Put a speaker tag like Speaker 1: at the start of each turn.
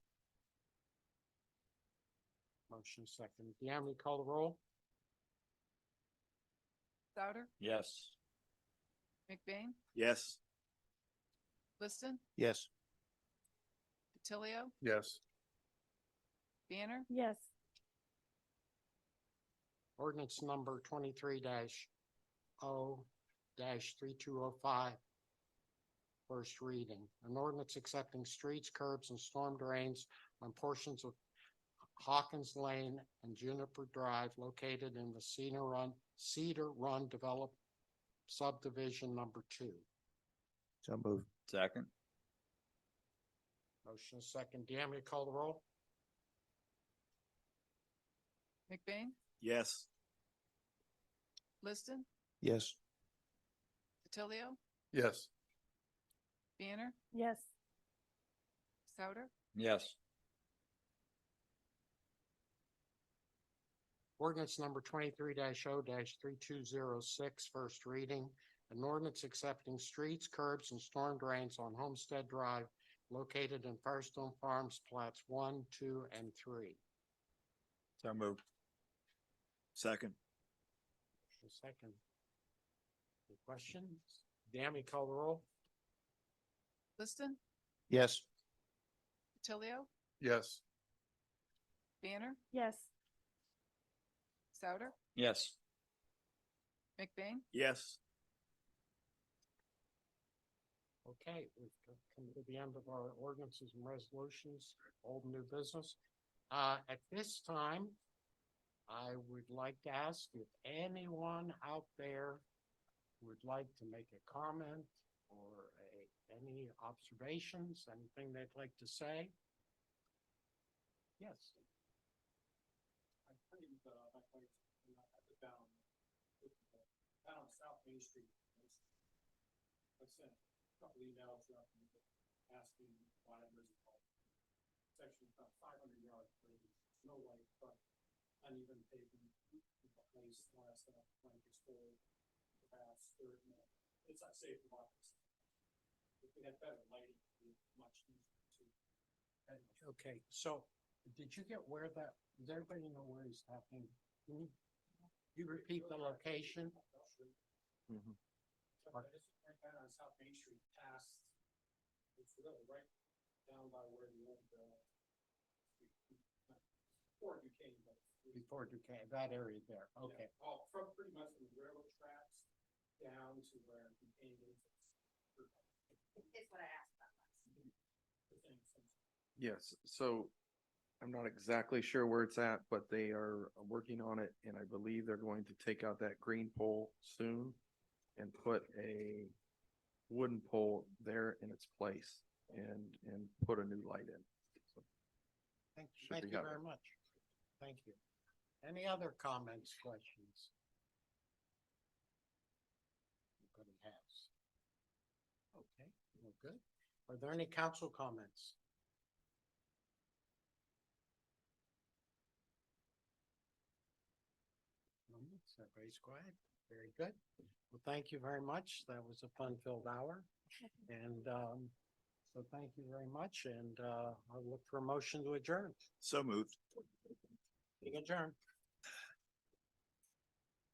Speaker 1: Motion second. Deanne, will you call the roll?
Speaker 2: Souter,
Speaker 3: Yes.
Speaker 2: McBain,
Speaker 3: Yes.
Speaker 2: Liston,
Speaker 3: Yes.
Speaker 2: DiTilio,
Speaker 3: Yes.
Speaker 2: Banner,
Speaker 4: yes,
Speaker 1: Ordinance number twenty-three dash O dash three two oh five. First reading, an ordinance accepting streets, curbs, and storm drains on portions of Hawkins Lane and Juniper Drive located in the Cedar Run, Cedar Run Develop subdivision number two.
Speaker 3: So move. Second.
Speaker 1: Motion is second. Deanne, will you call the roll?
Speaker 2: McBain,
Speaker 3: Yes.
Speaker 2: Liston,
Speaker 3: Yes.
Speaker 2: DiTilio,
Speaker 3: Yes.
Speaker 2: Banner,
Speaker 4: yes,
Speaker 2: Souter,
Speaker 3: Yes.
Speaker 1: Ordinance number twenty-three 0 three two zero six, first reading. An ordinance accepting streets, curbs, and storm drains on Homestead Drive located in Firestone Farms plats one, two, and three.
Speaker 3: So move. Second.
Speaker 1: Motion Second. Any questions? Deanne, will you call the roll?
Speaker 2: Liston,
Speaker 3: Yes.
Speaker 2: DiTilio,
Speaker 3: Yes.
Speaker 2: Banner,
Speaker 4: yes,
Speaker 2: Souter,
Speaker 3: Yes.
Speaker 2: McBain,
Speaker 3: Yes.
Speaker 1: Okay, we've come to the end of our ordinances and resolutions, old and new business. Uh, at this time, I would like to ask if anyone out there would like to make a comment or a, any observations, anything they'd like to say? Yes.
Speaker 5: I claim that I like the down, down on South Main Street. I sent a couple emails out and asking why there's a problem. Section about five hundred yards, no light, but uneven pavement, the place last night, when it's full, perhaps third man. It's not safe for walkers. If we had better lighting, it'd be much easier to.
Speaker 1: Okay, so did you get where that, does everybody know where he's talking? Can you- you repeat the location?
Speaker 3: Mhm.
Speaker 5: But I just went down on South Main Street past, it's really right down by where the old, uh, before you came, but.
Speaker 1: Before Duquesne, that area there, okay.
Speaker 5: Yeah, All from pretty much from the railroad tracks down to where the Indians.
Speaker 6: It's what I asked about last.
Speaker 7: Yes, so I'm not exactly sure where it's at, but they are working on it and I believe they're going to take out that green pole soon and put a wooden pole there in its place and, and put a new light in. So,
Speaker 1: Thank,
Speaker 7: Should
Speaker 1: thank
Speaker 7: be
Speaker 1: you
Speaker 7: covered.
Speaker 1: very much. Thank you. Any other comments, questions? Anybody has? Okay, well, good. Are there any council comments? No, it's Everybody's quiet. Very good. Well, thank you very much. That was a fun-filled hour. And, um, so thank you very much and, uh, I'll look for a motion to adjourn.
Speaker 3: So moved.
Speaker 1: Meeting adjourned.